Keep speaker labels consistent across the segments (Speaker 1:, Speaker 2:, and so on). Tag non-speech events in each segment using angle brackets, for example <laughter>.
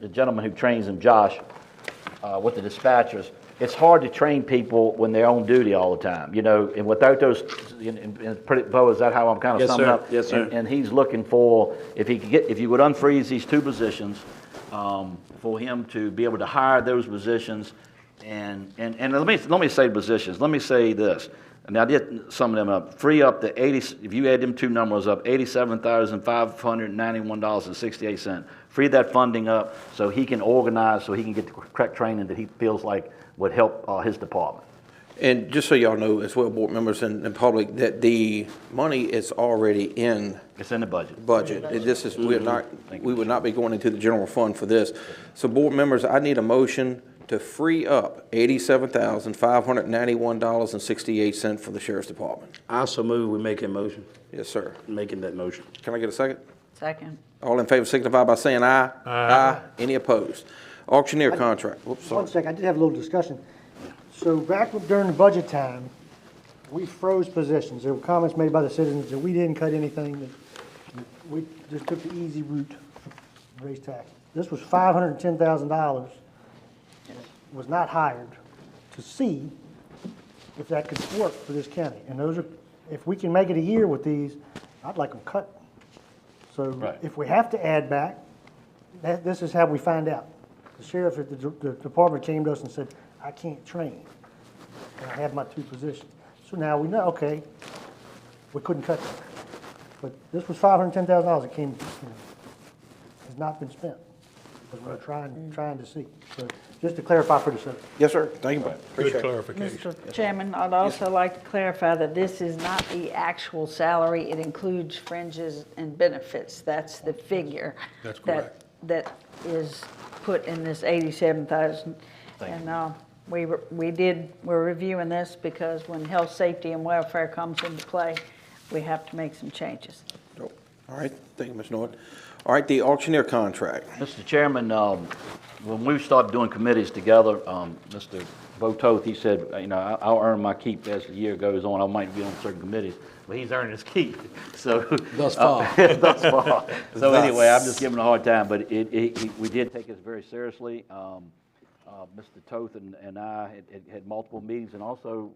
Speaker 1: the gentleman who trains them, Josh, uh, with the dispatchers, it's hard to train people when they're on duty all the time, you know, and without those, and, and- and pretty, Bo, is that how I'm kind of
Speaker 2: Yes,
Speaker 1: summing
Speaker 2: sir.
Speaker 1: up?
Speaker 2: Yes, sir.
Speaker 1: And- And he's looking for, if he could get, if you would unfreeze these two positions, um, for him to be able to hire those positions, and, and, and let me, let me say positions, let me say this, and I did sum them up, free up the eighty, if you add them two numbers up, eighty-seven thousand five hundred ninety-one dollars and sixty-eight cent, free that funding up so he can organize, so he can get the correct training that he feels like would help, uh, his department.
Speaker 2: And just so y'all know as well, board members and, and public, that the money is already in
Speaker 1: It's in the budget.
Speaker 2: budget. This is, we're not, we would not be going into the general fund for this. So board members, I need a motion to free up eighty-seven thousand, five hundred ninety-one dollars and sixty-eight cent for the sheriff's department.
Speaker 3: I also move we make a motion,
Speaker 2: Yes, sir.
Speaker 3: making that motion.
Speaker 2: Can I get a second?
Speaker 4: Second.
Speaker 2: All in favor signify by saying aye. Aye. Any opposed? Auctioneer contract, whoops, sorry.
Speaker 5: One second, I did have a little discussion. So back during the budget time, we froze positions. There were comments made by the citizens that we didn't cut anything, that we just took the easy route, raise tax. This was five hundred and ten thousand dollars, was not hired to see if that could work for this county. And those are, if we can make it a year with these, I'd like them cut. So
Speaker 1: Right.
Speaker 5: if we have to add back, that, this is how we find out. The sheriff at the, d- the department came to us and said, I can't train. And I have my two positions. So now we know, okay, we couldn't cut that. But this was five hundred ten thousand dollars that came, you know, has not been spent. But we're trying, trying to see. So just to clarify for the citizens.
Speaker 2: Yes, sir. Thank you, Brad. Appreciate
Speaker 6: Good
Speaker 2: it.
Speaker 6: clarification.
Speaker 4: Mr. Chairman, I'd also like to clarify that this is not the actual salary. It includes fringes and benefits. That's the figure.
Speaker 6: That's correct.
Speaker 4: That, that is put in this 87,000. And uh, we, were- we did, we're reviewing this because when health, safety, and welfare comes into play, we have to make some changes.
Speaker 2: All right, thank you, Ms. Norton. All right, the auctioneer contract.
Speaker 1: Mr. Chairman, um, when we started doing committees together, um, Mr. Bototh, he said, you know, I- I'll earn my keep as the year goes on. I might be on certain committees, but he's earning his keep, <laughs> so. Thus far. <laughs> Thus far. So anyway, I'm just giving him a hard time, but it, it, he- we did take this very seriously. Um, uh, Mr. Toth and and I had- had- had multiple meetings and also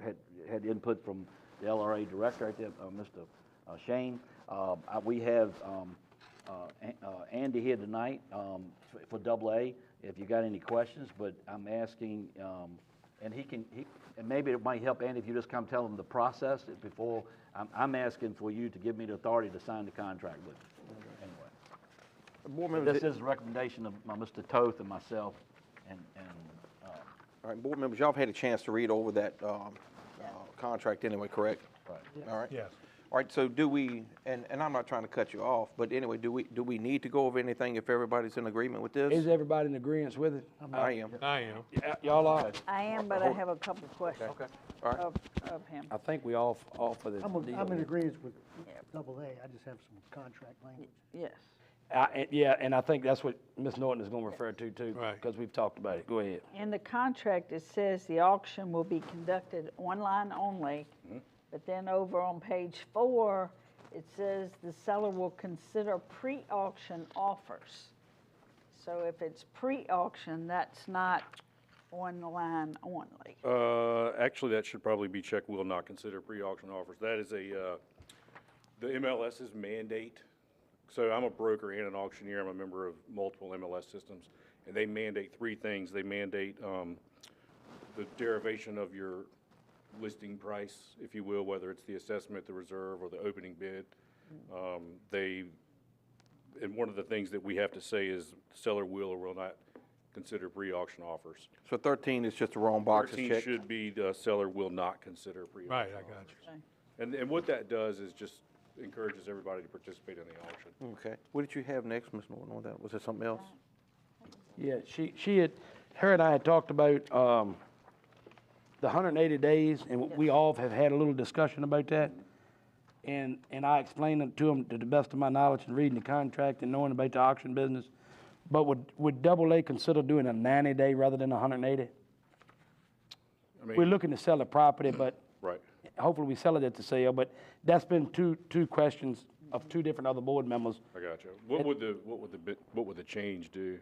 Speaker 1: uh, had had input from the LRA director, right there, uh, Mr. uh, Shane. Um, I- We have um, uh, An- uh, Andy here tonight um, f- for Double A, if you got any questions, but I'm asking, um, and he can, he- and maybe it might help, Andy, if you just come tell him the process before, I'm- I'm asking for you to give me the authority to sign the contract with him. Anyway.
Speaker 2: Board
Speaker 1: But
Speaker 2: members,
Speaker 1: This is a recommendation of my Mr. Toth and myself, and, and, uh,
Speaker 2: all right, board members, y'all have had a chance to read over that um, uh, contract anyway, correct?
Speaker 1: Right.
Speaker 2: All right?
Speaker 6: Yes.
Speaker 2: All right, so do we, and, and I'm not trying to cut you off, but anyway, do we, do we need to go over anything if everybody's in agreement with
Speaker 7: Is
Speaker 2: this?
Speaker 7: everybody in agreement with it?
Speaker 2: I am.
Speaker 6: I am.
Speaker 7: Yeah, Y'all are?
Speaker 4: I am, but I have a couple of questions
Speaker 2: All right.
Speaker 4: of, of him.
Speaker 7: I think we all, f- all for the
Speaker 5: I'm,
Speaker 7: deal.
Speaker 5: I'm in agreement with double A, I just have some contract language.
Speaker 4: Yes.
Speaker 7: I- and- Yeah, and I think that's what Ms. Norton is gonna refer to too.
Speaker 6: Right.
Speaker 7: Because we've talked about it. Go ahead.
Speaker 4: In the contract, it says the auction will be conducted online only, but then over on page four, it says the seller will consider pre-auction offers. So if it's pre-auction, that's not online only.
Speaker 8: Uh, Actually, that should probably be checked, will not consider pre-auction offers. That is a, uh, the MLS's mandate. So I'm a broker and an auctioneer, I'm a member of multiple MLS systems, and they mandate three things. They mandate um, the derivation of your listing price, if you will, whether it's the assessment, the reserve, or the opening bid. Um, They and one of the things that we have to say is seller will or will not consider pre-auction offers.
Speaker 2: So 13 is just the wrong box to
Speaker 8: 13
Speaker 2: check.
Speaker 8: should be the seller will not consider pre-auction.
Speaker 6: Right, I got you.
Speaker 8: And, and what that does is just encourages everybody to participate in the auction.
Speaker 2: Okay. What did you have next, Ms. Norton, on that? Was there something else?
Speaker 7: Yeah, she, she had, her and I had talked about um, the 180 days, and we all have had a little discussion about that. And, and I explained it to them to the best of my knowledge and reading the contract and knowing about the auction business. But would, would Double A consider doing a 90-day rather than a 180?
Speaker 8: I
Speaker 7: We're
Speaker 8: mean,
Speaker 7: looking to sell a property, but.
Speaker 8: Right.
Speaker 7: Hopefully, we sell it at the sale, but that's been two, two questions of two different other board members.
Speaker 8: I got you. What would the, what would the, bit- what would the change do?